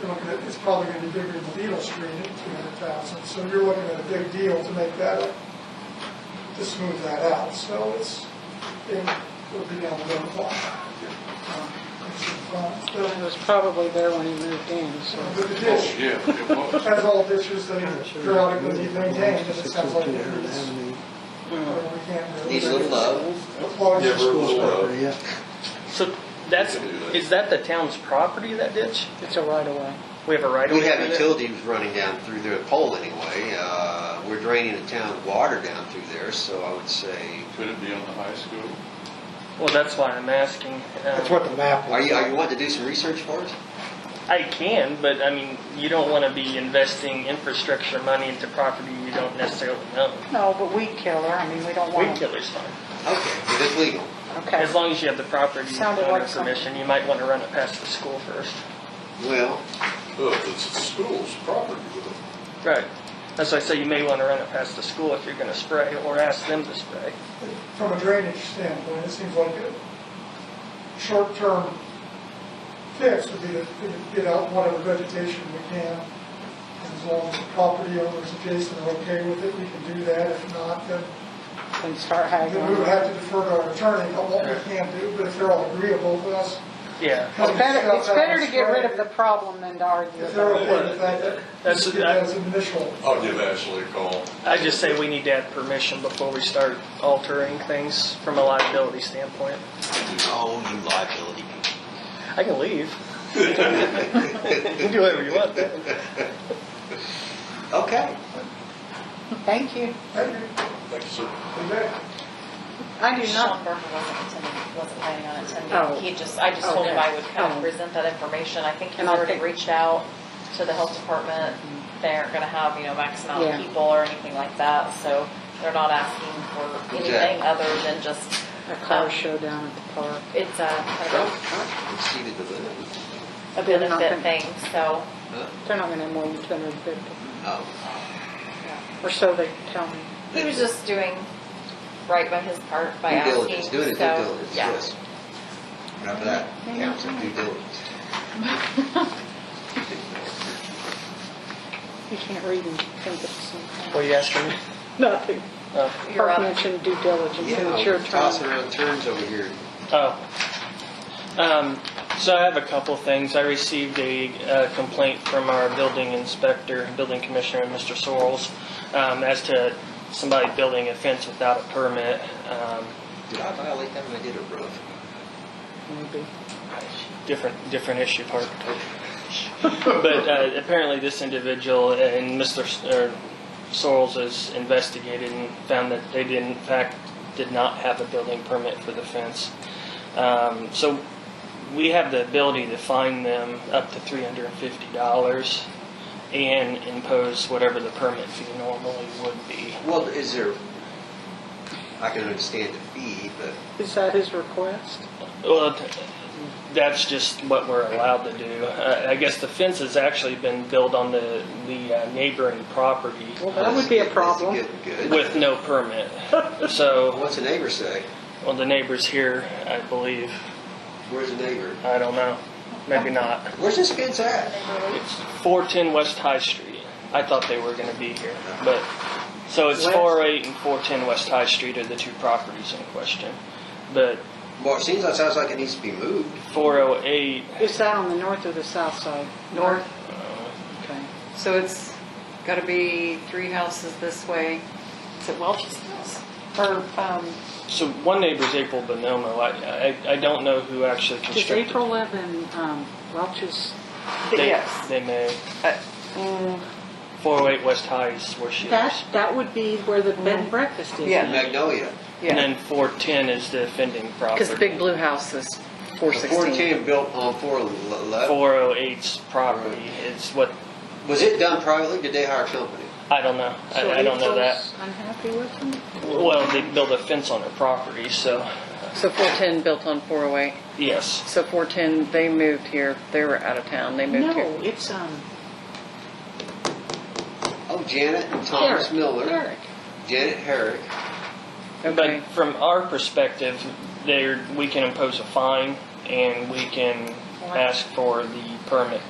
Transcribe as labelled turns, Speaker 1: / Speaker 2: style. Speaker 1: you're looking at, it's probably gonna be bigger than Beetle Street at two hundred thousand, so you're looking at a big deal to make that up, to smooth that out, so it's, it will be down the road a lot. Um, it's fun.
Speaker 2: It was probably there when he moved in, so.
Speaker 1: But the
Speaker 3: Oh,
Speaker 1: ditch,
Speaker 3: yeah, it was.
Speaker 1: has all ditches that are periodically maintained, and it sounds like it is,
Speaker 2: mm.
Speaker 1: we can't really.
Speaker 4: Needs a little love.
Speaker 1: Plug
Speaker 3: Yeah, we're-
Speaker 5: School's property, yeah.
Speaker 6: So that's,
Speaker 3: We can do that.
Speaker 6: is that the town's property, that ditch?
Speaker 2: It's a right of way.
Speaker 6: We have a right of way?
Speaker 4: We have
Speaker 6: through there?
Speaker 4: utilities running down through their pole anyway. Uh, We're draining the town water down through there, so I would say,
Speaker 3: Could it be on the high school?
Speaker 6: Well, that's why I'm asking.
Speaker 5: That's
Speaker 6: Um,
Speaker 5: what the map
Speaker 4: are
Speaker 5: was.
Speaker 4: you, are you wanting to do some research for us?
Speaker 6: I can, but I mean, you don't want to be investing infrastructure money into property you don't necessarily know.
Speaker 2: No, but weed killer, I mean, we don't
Speaker 6: Weed
Speaker 2: want to.
Speaker 6: killer's fine.
Speaker 4: Okay, if it's legal.
Speaker 2: Okay.
Speaker 6: As long as you have the property
Speaker 2: Sounded
Speaker 6: owner
Speaker 2: like something.
Speaker 6: permission, you might want to run it past the school first.
Speaker 4: Well,
Speaker 3: Oh, it's the school's property.
Speaker 6: Right. That's why I say you may want to run it past the school if you're going to spray or ask them to spray.
Speaker 1: From a drainage standpoint, it seems like a short-term fix would be to to get out whatever vegetation we can. And As long as the property owners adjacent are okay with it, we can do that. If not, then
Speaker 2: And start
Speaker 1: then we would
Speaker 2: haggling.
Speaker 1: have to defer to our attorney on what we can do, but if they're all agreeable with us.
Speaker 6: Yeah.
Speaker 2: It's better, it's better to get rid of the problem than to argue
Speaker 1: If they're
Speaker 2: about it.
Speaker 1: okay with that,
Speaker 6: That's-
Speaker 1: that's, that's an initial.
Speaker 3: I'll give Ashley a call.
Speaker 6: I just say we need to have permission before we start altering things from a liability standpoint.
Speaker 4: oh, you liability people.
Speaker 6: I can leave. You can do whatever you want then.
Speaker 4: Okay.
Speaker 2: Thank you.
Speaker 1: Thank you.
Speaker 3: Thank you, sir.
Speaker 1: Okay.
Speaker 2: I do
Speaker 7: Sean
Speaker 2: not,
Speaker 7: Berger wasn't attending, wasn't planning on
Speaker 2: Oh.
Speaker 7: attending. He just, I just told him I would kind
Speaker 2: Oh.
Speaker 7: of present that information. I think he's
Speaker 2: And I'll
Speaker 7: already
Speaker 2: take-
Speaker 7: reached out to the health department. They aren't gonna have, you know, max amount
Speaker 2: Yeah.
Speaker 7: of people or anything like that, so they're not asking for
Speaker 4: Okay.
Speaker 7: anything other than just,
Speaker 2: a car show down at the park.
Speaker 7: it's a kind
Speaker 4: Trump,
Speaker 7: of
Speaker 4: Trump exceeded the limit.
Speaker 7: a
Speaker 2: They're not
Speaker 7: benefit
Speaker 2: gonna-
Speaker 7: thing, so.
Speaker 4: Huh?
Speaker 2: They're not gonna have more than two hundred and fifty,
Speaker 4: Oh,
Speaker 2: or so they tell me.
Speaker 7: He was just doing right by his part by
Speaker 4: due
Speaker 7: asking, so.
Speaker 4: diligence, doing it due diligence,
Speaker 7: yeah.
Speaker 4: yes. Remember that, yeah, it's a due diligence.
Speaker 2: You can't read and think of something.
Speaker 6: What are you asking me?
Speaker 2: Nothing.
Speaker 6: Oh,
Speaker 7: You're
Speaker 2: Park
Speaker 7: up.
Speaker 2: mentioned due diligence,
Speaker 4: Yeah,
Speaker 2: and it's your
Speaker 4: we're tossing
Speaker 2: turn.
Speaker 4: around terms over here.
Speaker 6: oh. Um, so I have a couple things. I received a uh, complaint from our building inspector, building commissioner, Mr. Sorrells, um, as to somebody building a fence without a permit. Um,
Speaker 4: Did I violate that when I did a roof?
Speaker 2: Maybe.
Speaker 6: different, different issue, part. But uh, apparently, this individual and Mr. S- or Sorrells has investigated and found that they did, in fact, did not have a building permit for the fence. Um, so we have the ability to fine them up to three hundred and fifty dollars and impose whatever the permit fee normally would be.
Speaker 4: Well, is there, I can understand the fee, but
Speaker 2: Is that his request?
Speaker 6: Well, th- that's just what we're allowed to do. Uh, I guess the fence has actually been built on the, the uh, neighboring property
Speaker 2: Well, that would be a
Speaker 4: That's
Speaker 2: problem.
Speaker 4: good- Good.
Speaker 6: with no permit. So,
Speaker 4: What's the neighbor say?
Speaker 6: well, the neighbors here, I believe,
Speaker 4: Where's the neighbor?
Speaker 6: I don't know, maybe not.
Speaker 4: Where's this fence at?
Speaker 6: It's 410 West High Street. I thought they were going to be here, but, so it's
Speaker 2: West?
Speaker 6: 408 and 410 West High Street are the two properties in question. But
Speaker 4: Well, it seems like, sounds like it needs to be moved.
Speaker 6: 408,
Speaker 2: Is that on the north or the south side?
Speaker 8: north,
Speaker 2: Okay.
Speaker 8: so it's gotta be three houses this way. Is it Welch's house? Or, um,
Speaker 6: so one neighbor's April Bonomo. I, I, I don't know who actually
Speaker 2: Does
Speaker 6: constructed.
Speaker 2: April live in um, Welch's?
Speaker 6: They-
Speaker 8: yes.
Speaker 6: They may.
Speaker 8: Uh,
Speaker 6: 408 West High is where she lives.
Speaker 2: That, that would be where the bed and breakfast is.
Speaker 8: Yeah.
Speaker 4: Magnolia.
Speaker 6: And
Speaker 8: Yeah,
Speaker 6: then 410 is the offending property.
Speaker 8: because the big blue house is four
Speaker 4: The
Speaker 8: sixteen.
Speaker 4: 410 built on 411.
Speaker 6: 408's property is what,
Speaker 4: Was it done privately? Did they hire a company?
Speaker 6: I don't know.
Speaker 2: So
Speaker 6: I, I don't know that.
Speaker 2: April's Unhappy with him?
Speaker 6: Well, they built a fence on her property, so,
Speaker 8: So four ten built on four oh eight.
Speaker 6: yes.
Speaker 8: So four ten, they moved here, they were out of town, they moved
Speaker 2: No,
Speaker 8: here.
Speaker 2: it's, um,
Speaker 4: Oh, Janet and Thomas
Speaker 2: Eric.
Speaker 4: Miller.
Speaker 2: Eric.
Speaker 4: Janet Herrick.
Speaker 8: Okay.
Speaker 6: But from our perspective, there, we can impose a fine and we can ask for the permit